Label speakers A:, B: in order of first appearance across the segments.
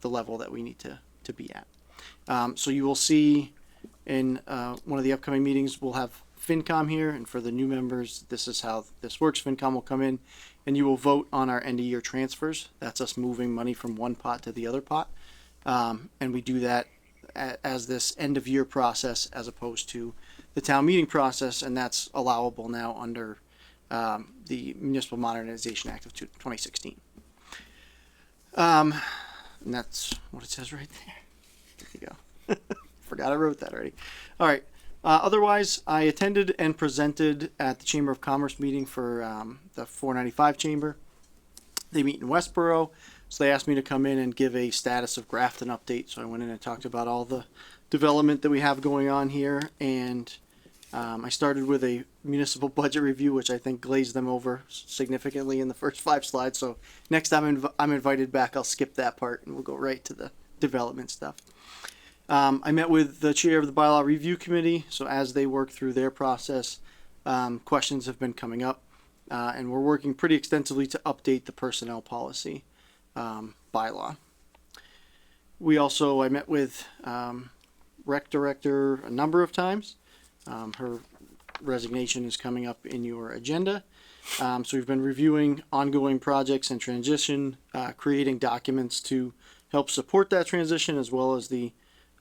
A: the level that we need to, to be at. Um, so you will see in uh, one of the upcoming meetings, we'll have FinCom here, and for the new members, this is how this works. FinCom will come in, and you will vote on our end of year transfers. That's us moving money from one pot to the other pot, um, and we do that a- as this end of year process as opposed to the town meeting process, and that's allowable now under um, the Municipal Modernization Act of two- 2016. Um, and that's what it says right there. There you go. Forgot I wrote that already. All right. Uh, otherwise, I attended and presented at the Chamber of Commerce meeting for um, the 495 Chamber. They meet in Westboro, so they asked me to come in and give a status of Grafton update. So I went in and talked about all the development that we have going on here, and um, I started with a municipal budget review, which I think glazed them over significantly in the first five slides. So next time I'm inv- I'm invited back, I'll skip that part and we'll go right to the development stuff. Um, I met with the chair of the bylaw review committee. So as they work through their process, um, questions have been coming up, uh, and we're working pretty extensively to update the personnel policy um, bylaw. We also I met with um, rec director a number of times. Um, her resignation is coming up in your agenda. Um, so we've been reviewing ongoing projects and transition, uh, creating documents to help support that transition as well as the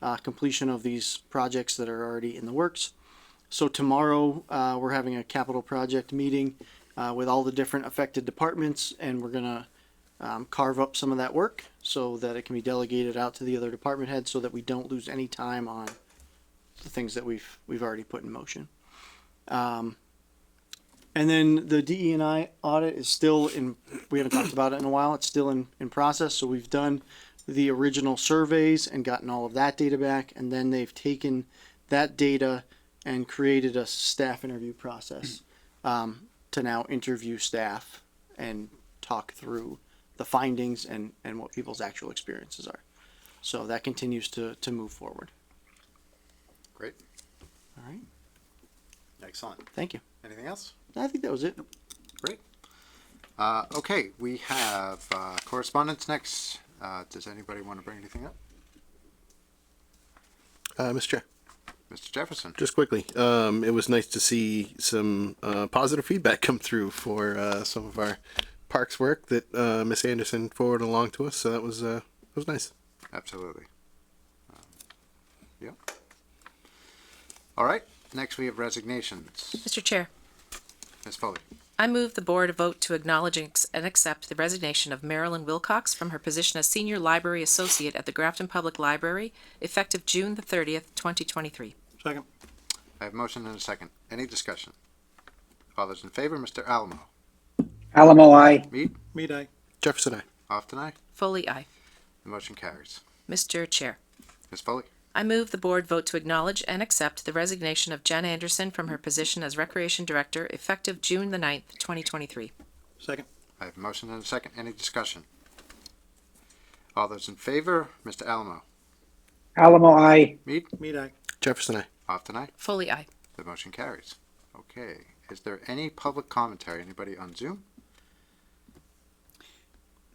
A: uh, completion of these projects that are already in the works. So tomorrow, uh, we're having a capital project meeting uh, with all the different affected departments, and we're gonna um, carve up some of that work so that it can be delegated out to the other department heads, so that we don't lose any time on the things that we've we've already put in motion. Um, and then the DE and I audit is still in. We haven't talked about it in a while. It's still in in process. So we've done the original surveys and gotten all of that data back, and then they've taken that data and created a staff interview process um, to now interview staff and talk through the findings and and what people's actual experiences are. So that continues to to move forward.
B: Great,
A: All right.
B: excellent.
A: Thank you.
B: Anything else?
A: I think that was it.
B: Great. Uh, okay, we have uh, correspondence next. Uh, does anybody want to bring anything up?
C: Uh, Mr. Chair,
B: Mr. Jefferson?
C: just quickly, um, it was nice to see some uh, positive feedback come through for uh, some of our parks work that uh, Miss Anderson forwarded along to us. So that was uh, that was nice.
B: Absolutely. Um, Yeah. All right, next we have resignations.
D: Mr. Chair,
B: Ms. Foley,
D: I move the board vote to acknowledge and ex- and accept the resignation of Marilyn Wilcox from her position as Senior Library Associate at the Grafton Public Library, effective June the thirtieth, twenty twenty-three.
B: I have motion and a second. Any discussion? All those in favor, Mr. Alamo?
E: Alamo, I.
B: Mead?
C: Jefferson, I.
B: Often aye.
D: Foley, aye.
B: The motion carries.
D: Mr. Chair,
B: Ms. Foley,
D: I move the board vote to acknowledge and accept the resignation of Jen Anderson from her position as Recreation Director, effective June the ninth, twenty twenty-three.
B: I have motion and a second. Any discussion? All those in favor, Mr. Alamo?
E: Alamo, I.
B: Mead?
C: Jefferson, I.
B: Often aye.
D: Foley, aye.
B: The motion carries. Okay, is there any public commentary? Anybody on Zoom?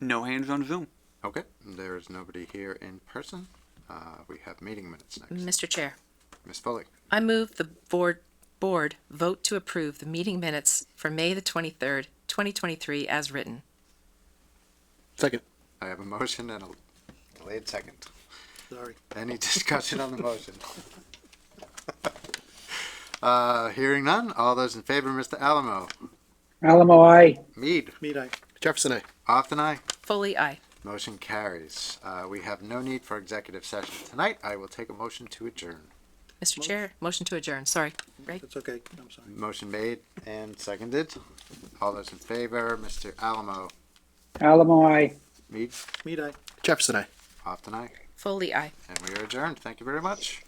F: No hands on Zoom.
B: Okay, there is nobody here in person. Uh, we have meeting minutes next.
D: Mr. Chair,
B: Ms. Foley,
D: I move the board, board vote to approve the meeting minutes for May the twenty-third, twenty twenty-three as written.
C: Second.
B: I have a motion and a delayed second.
A: Sorry.
B: Any discussion on the motion? Uh, hearing none, all those in favor, Mr. Alamo,
E: Alamo, I.
B: Mead,
A: Meat eye.
C: Jefferson, I.
B: Often I.
D: Foley, aye.
B: Motion carries. Uh, we have no need for executive session tonight. I will take a motion to adjourn.
D: Mr. Chair, motion to adjourn, sorry. Right?
A: That's okay. I'm sorry.
B: Motion made and seconded. All those in favor, Mr. Alamo,
E: Alamo, I.
B: Mead,
A: Meat eye.
C: Jefferson, I.
B: Often I.
D: Foley, aye.
B: And we are adjourned. Thank you very much.